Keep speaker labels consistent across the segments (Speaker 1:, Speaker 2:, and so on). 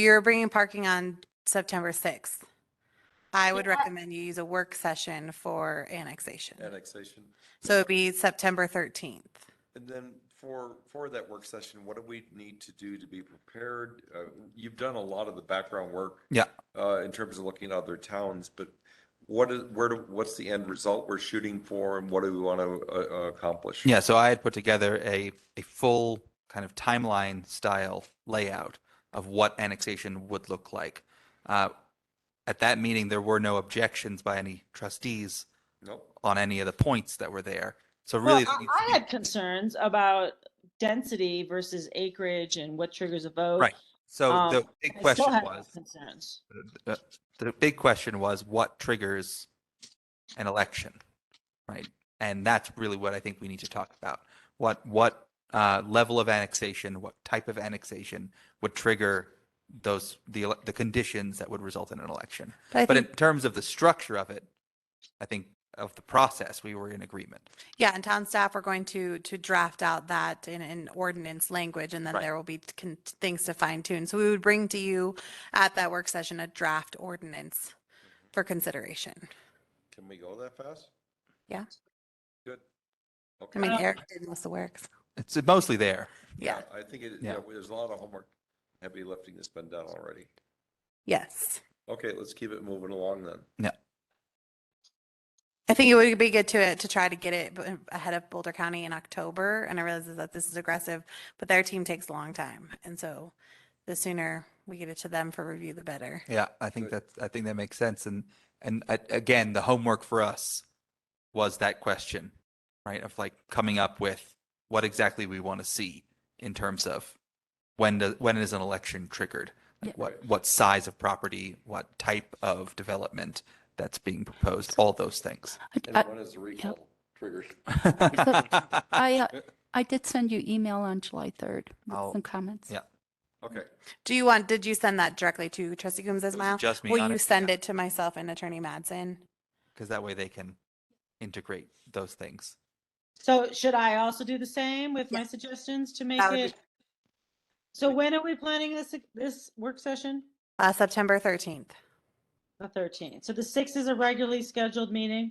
Speaker 1: You're bringing parking on September 6th. I would recommend you use a work session for annexation.
Speaker 2: annexation.
Speaker 1: So it'd be September 13th.
Speaker 2: And then for, for that work session, what do we need to do to be prepared? Uh, You've done a lot of the background work.
Speaker 3: Yeah.
Speaker 2: uh, In terms of looking at other towns, but what is, where, do what's the end result we're shooting for and what do we want to accomplish?
Speaker 3: Yeah, so I had put together a a full kind of timeline style layout of what annexation would look like. Uh, at that meeting, there were no objections by any trustees
Speaker 2: Nope.
Speaker 3: on any of the points that were there. So
Speaker 4: Well,
Speaker 3: really, there
Speaker 4: I
Speaker 3: needs to
Speaker 4: I
Speaker 3: be-
Speaker 4: had concerns about density versus acreage and what triggers a vote.
Speaker 3: Right. so
Speaker 4: um,
Speaker 3: the big
Speaker 4: I still
Speaker 3: question
Speaker 4: have
Speaker 3: was
Speaker 4: Concerns.
Speaker 3: the- the big question was what triggers an election, right? And that's really what I think we need to talk about. What what uh, level of annexation, what type of annexation would trigger those the ele- the conditions that would result in an election?
Speaker 1: But I
Speaker 3: But in
Speaker 1: think,
Speaker 3: terms of the structure of it, I think of the process we were in agreement.
Speaker 1: yeah, and town staff are going to, to draft out that in, in ordinance language, and then
Speaker 3: Right.
Speaker 1: there will be con- things to fine tune. So we would bring to you at that work session a draft ordinance for consideration.
Speaker 2: Can we go that fast?
Speaker 1: Yeah.
Speaker 2: Good.
Speaker 1: I
Speaker 2: Okay.
Speaker 1: mean,
Speaker 4: Uh,
Speaker 1: Eric did most of the work. so-
Speaker 3: It's mostly there.
Speaker 1: Yeah,
Speaker 2: I think it, yeah,
Speaker 3: Yeah.
Speaker 2: there's a lot of homework, heavy lifting that's been done already.
Speaker 1: yes.
Speaker 2: Okay, let's keep it moving along then.
Speaker 1: I think it would be good to, to try to get it b- ahead of Boulder County in October. And I realize that this is aggressive, but their team takes a long time. And so the sooner we get it to them for review, the better.
Speaker 3: Yeah, I think that I think that makes sense. And and I, again, the homework for us was that question, right? Of like coming up with what exactly we want to see in terms of when does when is an election triggered? Like What what size of property? What type of development that's being proposed? All those things.
Speaker 5: I-
Speaker 1: Uh,
Speaker 5: I-
Speaker 2: And when is the recall triggered?
Speaker 5: I, uh, I did send you email on July 3rd
Speaker 3: I'll-
Speaker 5: with some comments.
Speaker 3: yeah.
Speaker 2: Okay.
Speaker 1: Do you want, did you send that directly to trustee Coombs
Speaker 3: It
Speaker 1: as
Speaker 3: was
Speaker 1: well?
Speaker 3: just me,
Speaker 1: Will you
Speaker 3: honestly,
Speaker 1: send
Speaker 3: yeah.
Speaker 1: it to myself and attorney Madsen?
Speaker 3: Because that way they can integrate those things.
Speaker 4: So should I also do the same with my suggestions to make
Speaker 1: That would be-
Speaker 4: it? So when are we planning this, this work session?
Speaker 1: Uh, September 13th.
Speaker 4: The thirteenth. So the sixth is a regularly scheduled meeting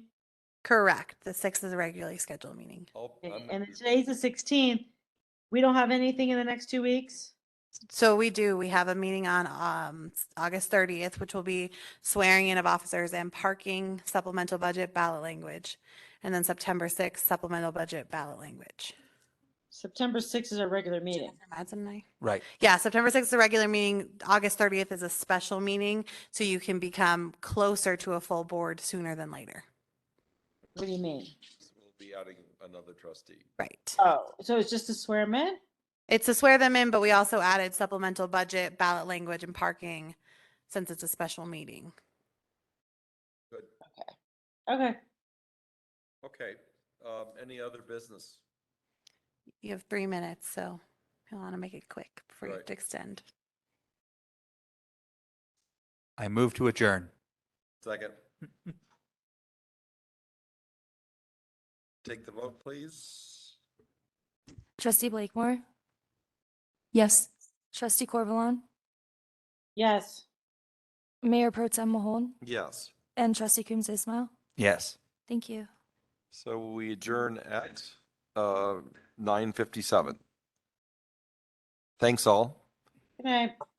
Speaker 1: Correct. The sixth is a regularly scheduled meeting.
Speaker 2: I'll- I'm-
Speaker 4: and then today's the sixteenth. We don't have anything in the next two weeks?
Speaker 1: So we do, we have a meeting on um, s- August 30th, which will be swearing in of officers and parking supplemental budget ballot language. And then September 6th supplemental budget ballot language.
Speaker 4: September sixth is a regular meeting.
Speaker 1: Madsen and I-
Speaker 3: Right.
Speaker 1: Yeah, September 6th is a regular meeting. August 30th is a special meeting, so you can become closer to a full board sooner than later.
Speaker 4: What do you mean?
Speaker 2: We'll be adding another trustee.
Speaker 1: Right.
Speaker 4: Oh, so it's just a swear in?
Speaker 1: It's to swear them in, but we also added supplemental budget, ballot language and parking since it's a special meeting.
Speaker 2: Good.
Speaker 4: Okay.
Speaker 2: Okay. Um, any other business?
Speaker 1: You have three minutes, so you want to make it quick before you have
Speaker 2: Right.
Speaker 1: to extend.
Speaker 3: I move to adjourn.
Speaker 2: Second. Take the vote, please.
Speaker 6: Trustee Blakemore,
Speaker 5: Yes.
Speaker 6: Trustee Corvalon,
Speaker 4: Yes.
Speaker 6: Mayor Pro Tem Mahone,
Speaker 2: Yes.
Speaker 6: and Trustee Coombs Ismail.
Speaker 3: Yes.
Speaker 6: Thank you.
Speaker 2: So we adjourn at, uh, nine fifty-seven. Thanks all.
Speaker 4: Good night.